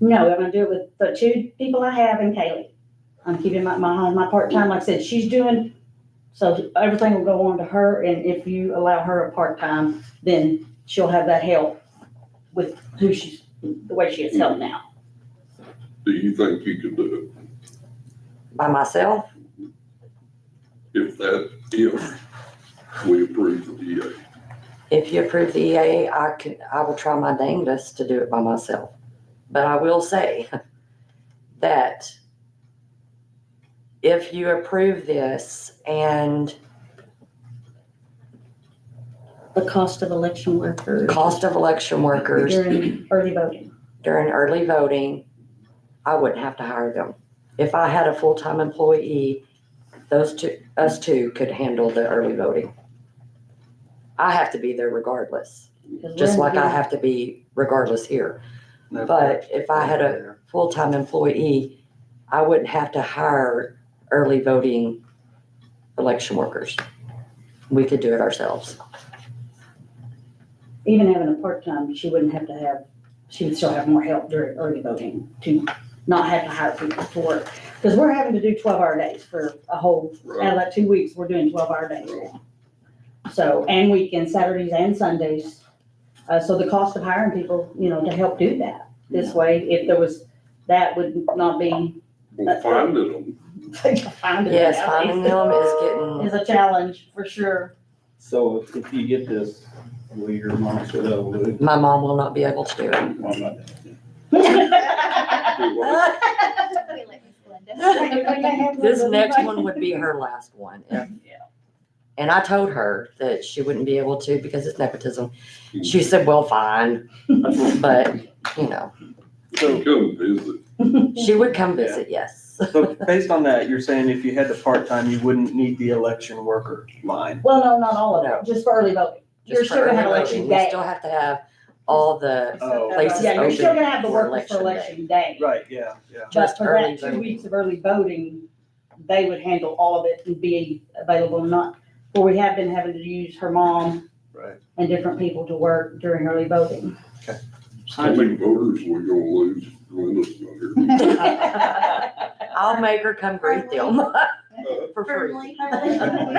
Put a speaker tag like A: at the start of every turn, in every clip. A: No, I'm gonna do it with the two people I have and Kaylee. I'm keeping my, my, my part-time, like I said, she's doing, so everything will go on to her, and if you allow her a part-time, then she'll have that help with who she's, the way she is helped now.
B: Do you think you could do
C: by myself?
B: it if that, if we approve the DA?
C: If you approve the EA, I can, I will try my dangest to do it by myself. But I will say that if you approve this and
A: The cost of election workers
C: cost of election workers
A: during early voting.
C: during early voting, I wouldn't have to hire them. If I had a full-time employee, those two, us two could handle the early voting. I have to be there regardless,
A: 'cause we're
C: just
A: in
C: like I
A: the-
C: have to be regardless here. But if I had a full-time employee, I wouldn't have to hire early voting election workers. We could do it ourselves.
A: Even having a part-time, she wouldn't have to have, she would still have more help during early voting to not have to hire people to work. Because we're having to do twelve-hour days for a whole out
B: Right,
A: of that uh, two weeks, we're doing twelve hour days. So, and weekends, Saturdays and Sundays. Uh, so the cost of hiring people, you know, to help do that, this way, if there was, that would not be,
B: well, finding them,
A: finding
C: Yes,
A: out
C: finding
A: is-
C: them is getting,
A: Is a challenge, for sure.
D: So if- if you get this, will your mom sit over with?
C: my mom will not be able to do it.
D: Well, I'm not-
B: do what?
C: This next one would be her last one. if- And I told her that she wouldn't be able to because it's nepotism. She said, well, fine, but, you know,
B: come visit.
C: she would come visit, yes.
E: So based on that, you're saying if you had the part-time, you wouldn't need the election worker line?
A: Well, no, not all of
C: No.
A: it, just for early voting. You're
C: Just for
A: still gonna have
C: early
A: election
C: voting.
A: day.
C: You still have to have all the,
E: Oh.
C: Places
A: Yeah, you're still
C: open
A: gonna have the
C: for
A: workers for election
C: election
A: day.
E: Right, yeah, yeah.
A: But
C: Just
A: for
C: early
A: that two
C: voting.
A: weeks of early voting, they would handle all of it and be available, not, well, we have been having to use her mom
E: Right.
A: and different people to work during early voting.
B: How many voters we gonna lose when this is here?
A: Mm-hmm.
C: I'll make her come greet them for free.
B: Well,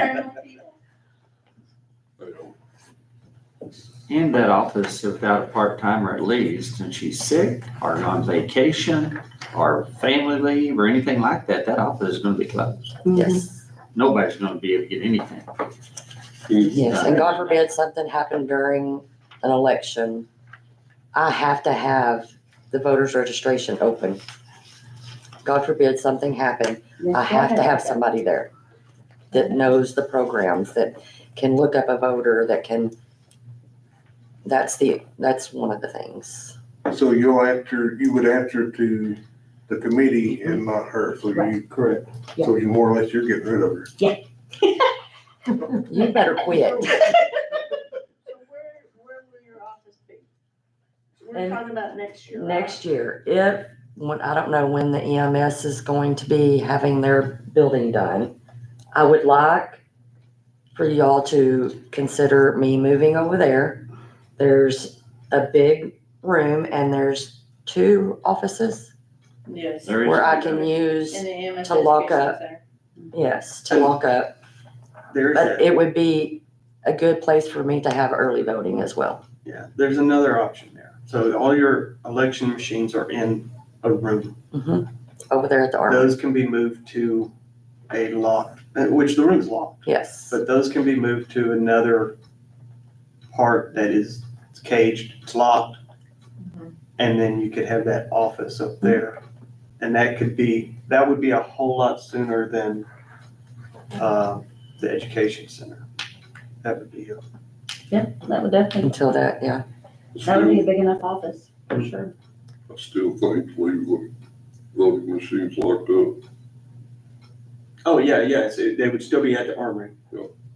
F: And that office without a part-timer at least, and she's sick or on vacation or family leave or anything like that, that office is gonna be closed.
C: Yes,
F: Nobody's gonna be able to get anything.
C: yes, and God forbid something happened during an election. I have to have the voter's registration open. God forbid something happened, I have to have somebody there that knows the programs, that can look up a voter, that can, that's the, that's one of the things.
G: So you'll answer, you would answer to the committee and not her, so you,
A: Right.
G: correct, so you more or less you're getting rid of her.
C: You better quit.
H: So where, where will your office be? So We're
C: And
H: talking about next year. right?
C: Next year, if, when, I don't know when the EMS is going to be having their building done. I would like for y'all to consider me moving over there. There's a big room and there's two offices
H: Yes.
F: There is-
C: where I can use,
H: And the EMS.
C: To lock
H: education
C: up.
H: center.
C: yes, to lock up.
E: There's,
C: But
E: that.
C: it would be a good place for me to have early voting as well.
E: yeah, there's another option there. So all your election machines are in a room.
C: Mhm. Over there at the Armory,
E: Those can be moved to a locked, uh, which the room's locked,
C: yes.
E: but those can be moved to another part that is caged, it's locked. And then you could have that office up there. And that could be, that would be a whole lot sooner than, uh, the education center. That would be a
A: Yeah, that would definitely,
C: Until that, yeah.
A: that would
B: Still,
A: be a big enough office, for sure.
B: I still think leave the voting machines locked up,
E: Oh, yeah, yes, it- they would still be at the armory.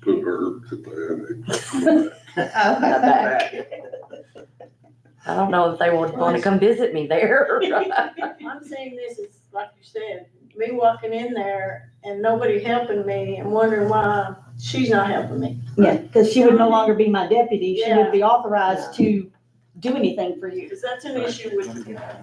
B: put her at the annex.
C: the back.
E: Back.
C: I don't know if they would want to come visit me there.
H: I'm saying this is, like you said, me walking in there and nobody helping me and wondering why she's not helping me.
A: Yeah, because she would no longer be my deputy, she would be authorized to do anything for you.
H: Because that's an issue with